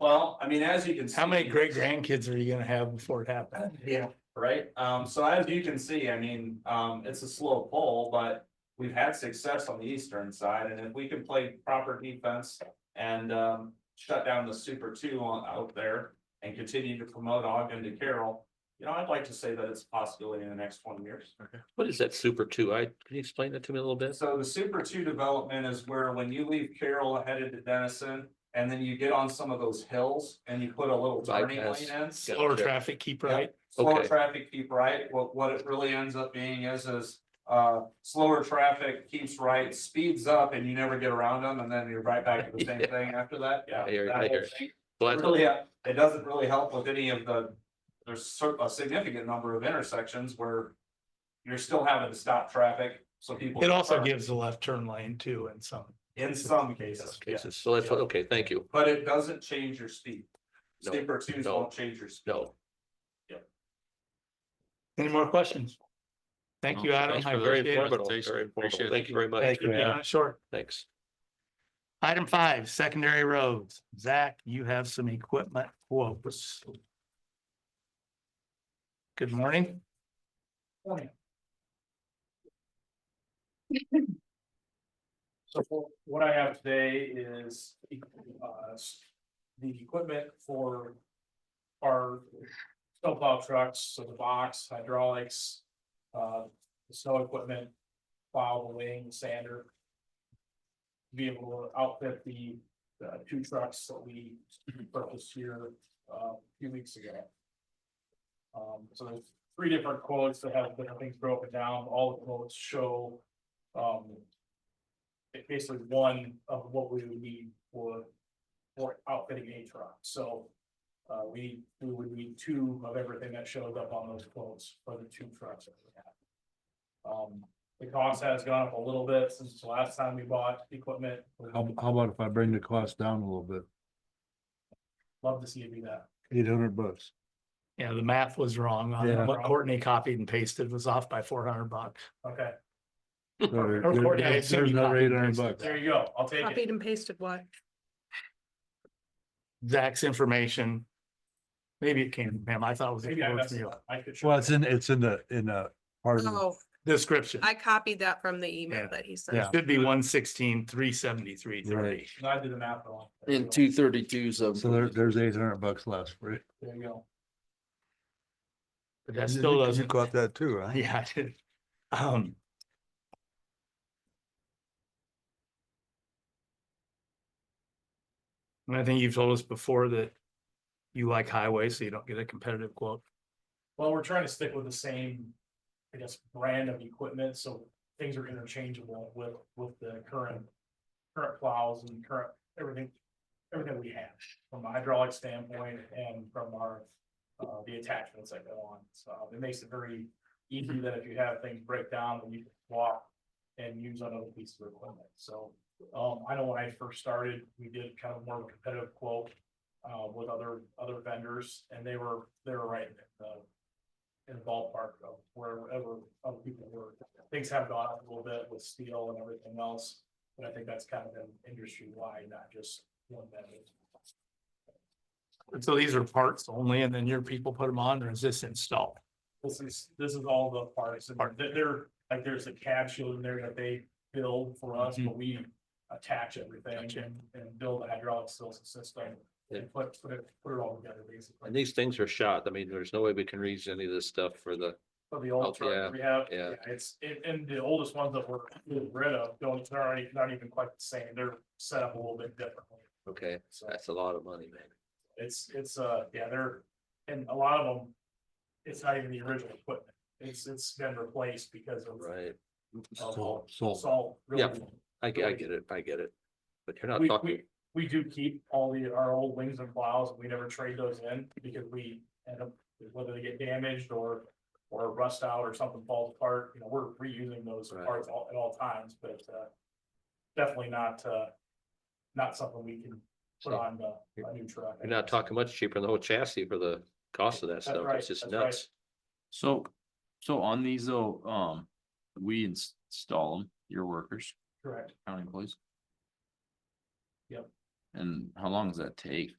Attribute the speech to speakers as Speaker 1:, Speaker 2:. Speaker 1: Well, I mean, as you can.
Speaker 2: How many
Speaker 1: see-
Speaker 2: great grandkids are you gonna have before it happens?
Speaker 1: Yeah, right. Um, so as you can see, I mean, um, it's a slow pull, but we've had success on the eastern side, and if we can play proper defense and, um, shut down the super two on, out there and continue to promote Ogden to Carroll, you know, I'd like to say that it's a possibility in the next twenty years.
Speaker 3: What is that super two? I, can you explain that to me a little bit?
Speaker 1: So the super two development is where when you leave Carroll headed to Denison, and then you get on some of those hills and you put a little turning lane
Speaker 3: Bypass.
Speaker 1: in.
Speaker 2: Slower traffic, keep right?
Speaker 1: slower
Speaker 3: Okay.
Speaker 1: traffic keep right, what, what it really ends up being is, is. Uh, slower traffic keeps right, speeds up and you never get around them and then you're right back to the same
Speaker 3: Yeah.
Speaker 1: thing after that, yeah.
Speaker 3: I hear-
Speaker 1: that
Speaker 3: I
Speaker 1: whole
Speaker 3: hear.
Speaker 1: thing.
Speaker 3: Well, that's-
Speaker 1: Really, uh, it doesn't really help with any of the, there's cer- a significant number of intersections where. You're still having to stop traffic, so people.
Speaker 2: It also
Speaker 1: are-
Speaker 2: gives a left turn lane too in some.
Speaker 1: In some
Speaker 3: that's
Speaker 1: cases, yeah,
Speaker 3: cases. So that's, what- okay, thank you.
Speaker 1: but it doesn't change your speed.
Speaker 3: No,
Speaker 1: Steeper twos
Speaker 3: no.
Speaker 1: won't change your speed.
Speaker 3: No.
Speaker 2: Any more questions? Thank you, Adam.
Speaker 3: Thanks
Speaker 2: I
Speaker 3: for the very
Speaker 2: appreciate it.
Speaker 3: informative,
Speaker 4: presentation.
Speaker 3: very informative.
Speaker 4: Appreciate it.
Speaker 3: Thank you very much.
Speaker 2: Thank you,
Speaker 3: Yeah,
Speaker 2: Adam. Short.
Speaker 3: Thanks.
Speaker 2: Item five, secondary roads. Zach, you have some equipment quotes. Good morning.
Speaker 5: So what I have today is uh, the equipment for our snowplow trucks, so the box, hydraulics, uh, the snow equipment, plow, the wing, sander. Be able to outfit the uh, two trucks that we purchased here uh, a few weeks ago. Um, So there's three different quotes that have different things broken down. All the quotes show um, it basically one of what we would need for, for outfitting a truck, so. Uh, we, we would need two of everything that shows up on those quotes for the two trucks that we have. Um, the cost has gone up a little bit since the last time we bought equipment, would
Speaker 4: How, how about if I bring the cost down a little bit,
Speaker 5: love to see you do that.
Speaker 4: eight hundred bucks?
Speaker 2: Yeah, the math was wrong. on
Speaker 4: Yeah.
Speaker 2: What Courtney copied and pasted was off by four hundred bucks.
Speaker 5: Okay,
Speaker 4: Sorry,
Speaker 2: Or
Speaker 4: there-
Speaker 2: Courtney, I
Speaker 4: There's
Speaker 2: assume you
Speaker 4: another
Speaker 2: copied
Speaker 4: eight
Speaker 2: and
Speaker 4: hundred
Speaker 2: pasted
Speaker 4: bucks.
Speaker 5: there you go, I'll take
Speaker 6: Copied
Speaker 5: it,
Speaker 6: and pasted what?
Speaker 2: Zach's information. Maybe it came from him. I thought it was.
Speaker 5: maybe I messed
Speaker 2: it
Speaker 5: it
Speaker 2: was
Speaker 5: up, I could.
Speaker 4: Well, it's in, it's in the, in the, part of,
Speaker 6: Oh,
Speaker 2: Description.
Speaker 6: I copied that from the
Speaker 2: Yeah,
Speaker 6: email that he sent.
Speaker 2: It should be one sixteen, three seventy-three, thirty.
Speaker 4: Right.
Speaker 5: And I did the math wrong.
Speaker 7: In two thirty-two, so.
Speaker 4: so there, there's eight hundred bucks less, right?
Speaker 5: There you go,
Speaker 2: But that still doesn't.
Speaker 4: that too, huh?
Speaker 2: Yeah, I did. Um. And I think you've told us before that you like highways, so you don't get a competitive quote.
Speaker 5: well, we're trying to stick with the same, I guess, brand of equipment, so things are interchangeable with, with the current. Current plows and current, everything, everything we have from a hydraulic standpoint and from our, uh, the attachments that go on. So it makes it very easy that if you have things break down, then you can walk and use another piece of equipment. So, um, I know when I first started, we did kind of more of a competitive quote, uh, with other, other vendors and they were, they were right in the in the ballpark of wherever other people were. Things have gone up a little bit with steel and everything else, but I think that's kind of been industry wide, not just one vendor.
Speaker 2: So these are parts only, and then your people put them on, or is this installed?
Speaker 5: This is, this is all the parts, and they're, they're- like, there's a capsule in there that they build for us,
Speaker 2: Mm-hmm.
Speaker 5: but we attach everything and, and build the hydraulic sys- system.
Speaker 3: Yeah.
Speaker 5: And put, put it, put it all together basically.
Speaker 3: And these things are shot. I mean, there's no way we can reach any of this stuff for the,
Speaker 5: For the
Speaker 3: Oh,
Speaker 5: old truck
Speaker 3: yeah,
Speaker 5: that we have,
Speaker 3: yeah.
Speaker 5: yeah, it's, and, and the oldest ones that we're getting rid of, don't, they're already, not even quite the same, they're set up a little bit differently.
Speaker 3: okay,
Speaker 5: So
Speaker 3: that's a lot of money, man.
Speaker 5: it's, it's, uh, yeah, they're, and a lot of them, it's not even the original equipment. It's, it's been replaced because of
Speaker 3: Right.
Speaker 2: Oh,
Speaker 4: Salt, salt.
Speaker 5: salt. really.
Speaker 3: Yeah. I, ge- I get it. I get it. But you're not
Speaker 5: We,
Speaker 3: talking,
Speaker 5: we, we do keep all the, our old wings and plows, and we never trade those in because we end up, whether they get damaged or. Or rust out or something falls apart, you know, we're reusing those
Speaker 3: Right.
Speaker 5: parts all, at all times, but, uh. Definitely not, uh, not something we can put
Speaker 3: So
Speaker 5: on the, a new truck. I
Speaker 3: you're not
Speaker 5: guess.
Speaker 3: talking much cheaper than the whole chassis for the cost of that stuff.
Speaker 5: right,
Speaker 3: It's just
Speaker 5: that's right.
Speaker 3: nuts.
Speaker 7: So, so on these though, um, we ins- install them, your workers,
Speaker 5: Correct.
Speaker 7: county employees?
Speaker 5: Yep.
Speaker 7: And how long does that take?